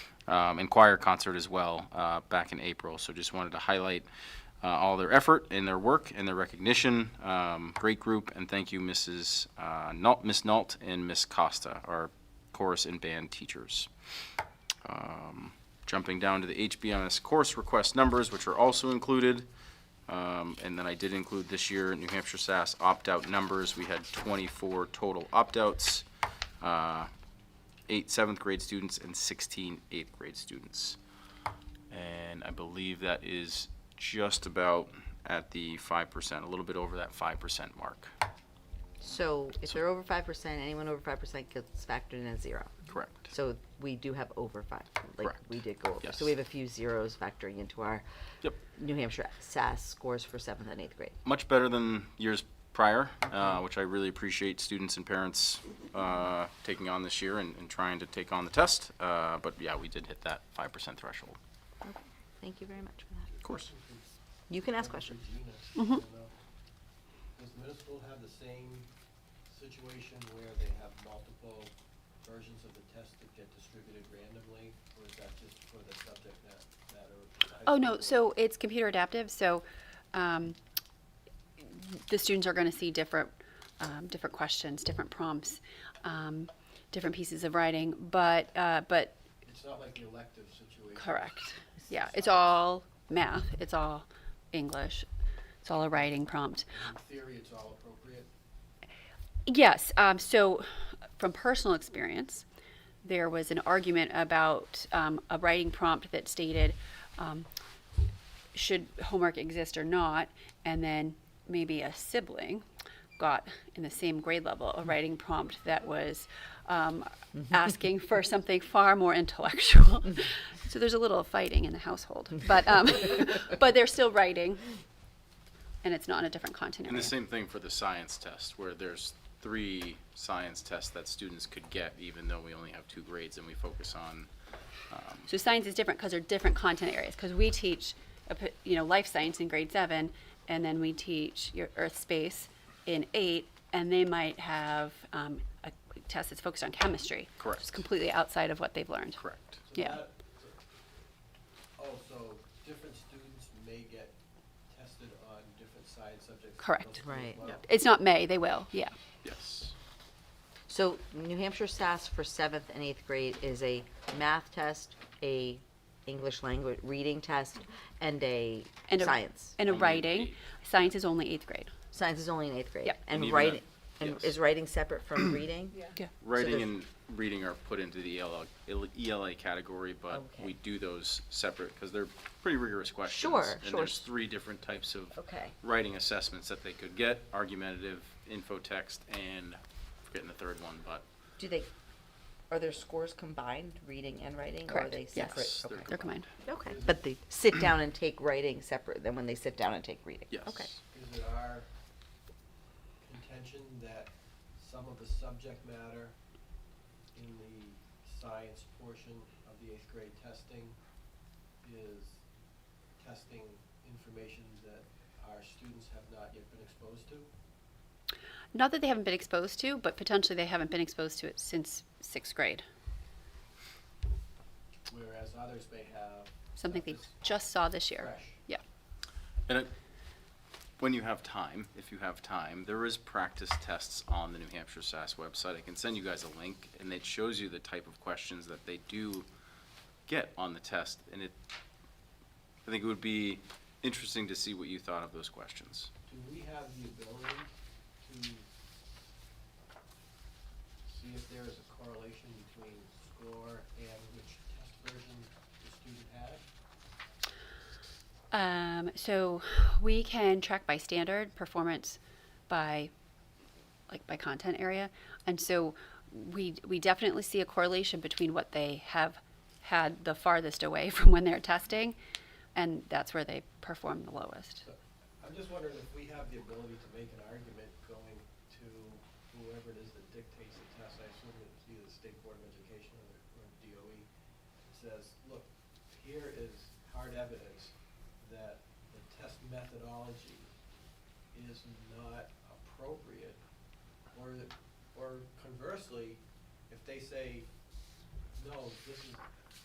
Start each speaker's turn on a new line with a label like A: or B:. A: um, and choir concert as well uh, back in April. So just wanted to highlight uh, all their effort and their work and their recognition. Um, great group, and thank you, Mrs. Uh, Nault, Miss Nault and Miss Costa, our chorus and band teachers. Um, jumping down to the HBMS course request numbers, which are also included. Um, and then I did include this year New Hampshire SAS opt-out numbers. We had 24 total opt-outs, uh, eight seventh grade students and 16 eighth grade students. And I believe that is just about at the 5%, a little bit over that 5% mark.
B: So if they're over five percent, anyone over five percent gets factored in as zero.
A: Correct.
B: So we do have over five, like
A: Correct.
B: we did go over.
A: Yes.
B: So we have a few zeros factoring into our
A: Yep.
B: New Hampshire SAS scores for seventh and eighth grade.
A: much better than years prior, uh, which I really appreciate students and parents uh, taking on this year and, and trying to take on the test. Uh, but yeah, we did hit that 5% threshold.
B: Okay. Thank you very much for that.
A: Of course.
B: You can ask questions.
C: Mm-hmm.
D: Does middle school have the same situation where they have multiple versions of the test that get distributed randomly? Or is that just for the subject ma- matter? of the high
C: Oh, no,
D: school
C: so it's computer adaptive, so um, the students are going to see different, um, different questions, different prompts, um, different pieces of writing, but, uh, but,
D: board? It's not like the elective situation.
C: correct. Yeah, it's all math, it's all English, it's all a writing prompt.
D: In theory, it's all appropriate.
C: Yes. Um, so, from personal experience, there was an argument about um, a writing prompt that stated um, should homework exist or not, and then maybe a sibling got in the same grade level a writing prompt that was um, asking for something far more intellectual. so there's a little fighting in the household, but um, but they're still writing, and it's not in a different content
A: And
C: area.
A: the same thing for the science test, where there's three science tests that students could get, even though we only have two grades and we focus on.
C: So science is different because they're different content areas. Because we teach, a p- you know, life science in grade seven, and then we teach your earth space in eight, and they might have um, a test that's focused on chemistry.
A: Correct.
C: It's completely outside of what they've learned.
A: Correct.
D: So
C: Yeah.
D: that- so- Oh, so different students may get tested on different science subjects. in
C: Correct.
D: middle school as
B: Right.
D: well?
C: It's not May. They will. Yeah.
A: Yes.
B: So New Hampshire SAS for seventh and eighth grade is a math test, a English language reading test, and a
C: And a-
B: science.
C: And a
A: Only
C: writing.
A: eight.
C: Science is only eighth grade.
B: science is only in eighth grade.
C: Yeah.
A: And
B: And
A: even
B: writing,
A: that-
B: and
A: yes.
B: is writing separate from reading? Yeah.
C: Yeah.
A: Writing
B: there's-
A: and reading are put into the E ELA, ELA category, but
B: Okay.
A: we do those separate because they're pretty rigorous questions.
B: Sure,
A: And
B: sure.
A: there's three different types of
B: Okay.
A: writing assessments that they could get: argumentative, info text, and forgetting the third one, but
B: Do they, are their scores combined, reading and writing? Or are
C: Correct.
B: they
C: Yes.
B: separate?
A: Yes, they're
B: Okay.
C: They're combined.
B: Okay, but they sit down and take writing separate than when they sit down and take reading?
A: yes.
B: Okay,
D: Is it our contention that some of the subject matter in the science portion of the eighth grade testing is testing information that our students have not yet been exposed to?
C: Not that they haven't been exposed to, but potentially they haven't been exposed to it since sixth grade.
D: Whereas others may have.
C: Something they
D: stuff that's
C: just saw this year.
D: Fresh.
C: Yeah.
A: And it, when you have time, if you have time, there is practice tests on the New Hampshire SAS website. I can send you guys a link, and it shows you the type of questions that they do get on the test. And it, I think it would be interesting to see what you thought of those questions.
D: Do we have the ability to see if there is a correlation between score and which test version the student had?
C: Um, so we can track by standard performance by like by content area. And so we we definitely see a correlation between what they have had the farthest away from when they're testing and that's where they perform the lowest.
D: I'm just wondering if we have the ability to make an argument going to whoever it is that dictates the test, I assume it's either the State Board of Education or the- or DOE, that says, look, here is hard evidence that the test methodology is not appropriate, or, or conversely, if they say, no, this is